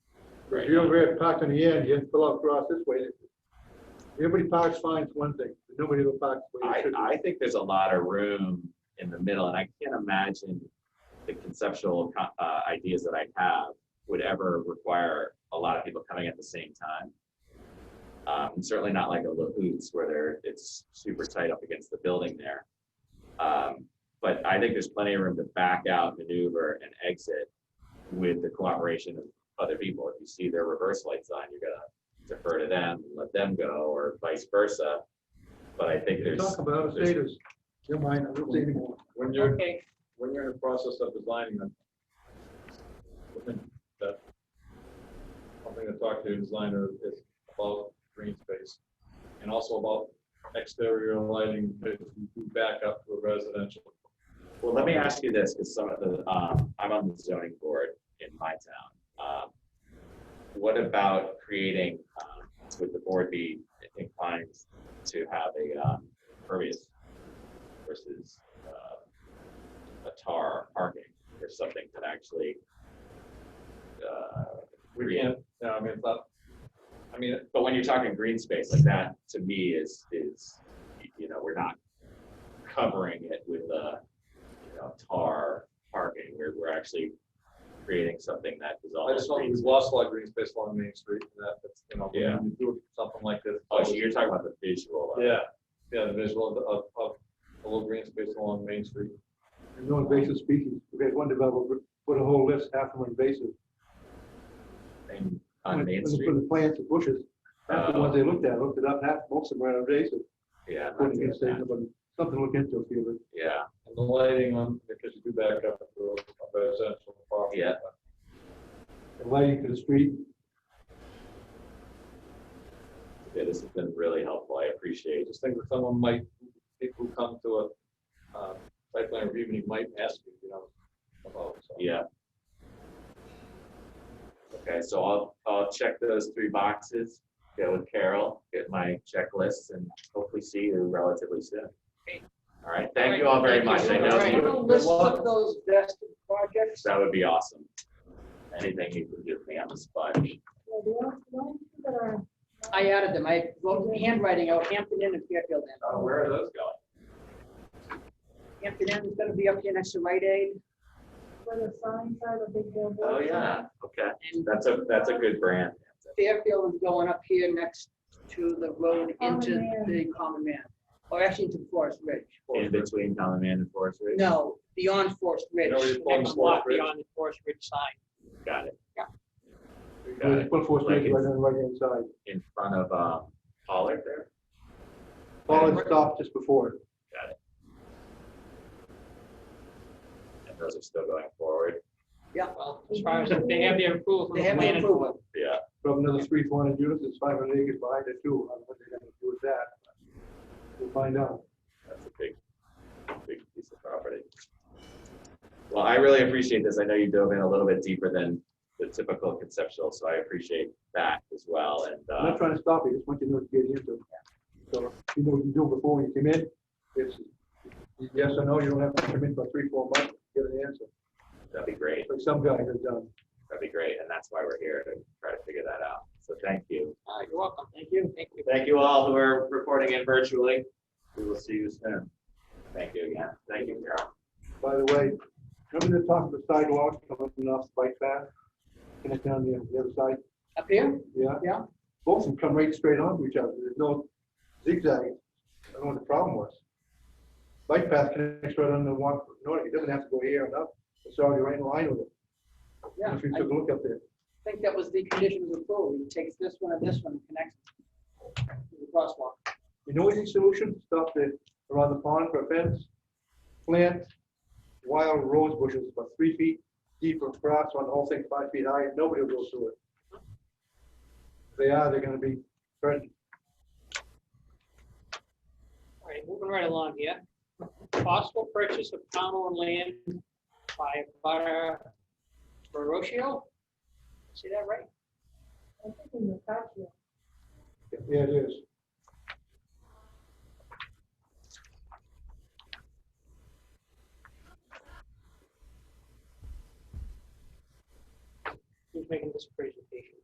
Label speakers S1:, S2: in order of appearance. S1: Right.
S2: If you only have parked on the end, you have to pull out across this way. Everybody parks fine, it's one thing, but nobody will park where they
S1: I,
S2: should.
S1: I think there's a lot of room in the middle, and I can't imagine the conceptual co- uh, ideas that I have would ever require a lot of people coming at the same time. Um, certainly not like a Lahoots where they're, it's super tight up against the building there. Um, but I think there's plenty of room to back out, maneuver, and exit with the cooperation of other people. If you see their reverse lights on, you're gonna defer to them, let them go, or vice versa. But I think
S2: You're
S1: there's.
S2: talking about out of
S1: there's-
S2: staters. Never mind, I don't say anymore.
S3: When you're,
S4: Okay,
S3: when you're in the process of designing them, I think that something to talk to the designer is about green space and also about exterior lighting, if you do back up to a residential.
S1: Well, let me ask you this, because some of the, um, I'm on the zoning board in my town. Um, What about creating, um, would the board be inclined to have a, um, pervious versus, uh, a tar parking or something that actually, uh,
S3: We can't, yeah, I mean, it's not, I mean,
S1: but when you're talking green space like that, to me is, is, you know, we're not covering it with a, you know, tar parking. We're, we're actually creating something that is
S3: I
S1: almost
S3: just don't,
S1: green.
S3: we've lost a lot of green space along Main Street, and that, that's, you know,
S1: Yeah.
S3: when you do something like this.
S1: Oh, so you're talking about the visual. of it.
S3: Yeah, yeah, the visual of, of a little green space along Main Street.
S2: There's no invasive species. We had one developer put a whole list, half of them invasive.
S1: And on
S2: When-
S1: Main
S2: when they
S1: Street, Oh.
S2: put the plants and bushes, half the ones they looked at, looked it up, half, most of them were invasive.
S1: yeah. I'm not
S2: Putting in
S1: doing that.
S2: statement, but something to look into, if you would.
S1: Yeah,
S3: And the lighting on, because you do back up to a residential property.
S1: Yeah.
S2: The lighting to the street,
S1: Yeah, this has been really helpful. I
S3: I
S1: appreciate it.
S3: just think that someone might, people who come to a, uh, site plan review, meeting might ask you, you know, about. so.
S1: Yeah. Okay, so I'll, I'll check those three boxes, go with Carol, get my checklists, and hopefully see you relatively soon.
S4: Great.
S1: All right, thank you all very much. I
S4: All
S1: know
S4: right.
S1: you-
S5: List of those vested projects.
S1: that would be awesome. Anything you can give me on the spot.
S5: Well, the ones- the ones that are-
S4: I added them. I wrote in handwriting out Hampton Inn and Fairfield Inn.
S1: Uh, Where are those going?
S4: Hampton Inn is gonna be up here next to Rite Aid
S5: Where the signs are, the big billboards.
S1: Oh, yeah, okay.
S4: and
S1: That's a, that's a good brand.
S4: Fairfield is going up here next to the road
S5: Common
S4: into
S5: Man.
S4: the Common Man. Or actually into Forest Ridge.
S1: In between Common Man and Forest Ridge?
S4: No, beyond Forest Ridge.
S3: No, it's
S4: Next
S3: beyond Forest
S4: block
S3: Ridge.
S4: Beyond the Forest Ridge sign.
S1: Got it.
S4: Yeah.
S1: Got it.
S2: put four
S1: Like
S2: stations right
S1: it's-
S2: on the right hand side.
S1: In front of, um, Pollard there?
S2: Paul had stopped just before.
S1: And those are still going forward?
S4: Yeah.
S6: Well, as far as
S3: Mm-hmm.
S6: if they have their approval from
S4: They
S6: the
S4: have the
S6: planning board.
S4: approval.
S1: Yeah.
S2: From another three, four hundred units, it's five hundred acres behind it too. I don't know what they're gonna do with that. We'll find out.
S1: That's a big, big piece of property. Well, I really appreciate this. I know you dove in a little bit deeper than the typical conceptual, so I appreciate that as well. And,
S2: I'm
S1: uh,
S2: not trying to stop you, just want you to know what you're getting into. So you know what you do before when you come in. It's yes or no, you don't have to come in for three, four months to get an answer.
S1: that'd be great.
S2: Like some guy has done.
S1: That'd be great. And that's why we're here to try to figure that out. So thank you.
S6: All right, Uh, You're welcome. Thank you. Thank you.
S1: Thank you all who are reporting in virtually. We will see you soon. Thank you again. Thank you, Carol.
S2: By the way, remember the talk of the sidewalk coming off the bike path? Connect down the, the other side,
S4: Up here?
S2: yeah?
S4: Yeah.
S2: Both of them come right straight onto each other. There's no zigzag. I don't know what the problem was. Bike path connects right on the walk, no, it doesn't have to go here and up. It's already right in line with it.
S4: Yeah.
S2: If you
S4: I
S2: took a look up there.
S4: think that was the condition of approval. He takes this one and this one and connects to the crosswalk.
S2: You know any solution, stuff that around the pond for a fence, plant wild rose bushes about three feet deep or across on the whole thing five feet high, and nobody will go through it. If they are, they're gonna be threatened.
S6: All right, moving right along here. Possible purchase of town owned land by Butter Barocio? See that right?
S5: I think in the back here.
S2: Yeah, it is.
S6: Who's making this presentation?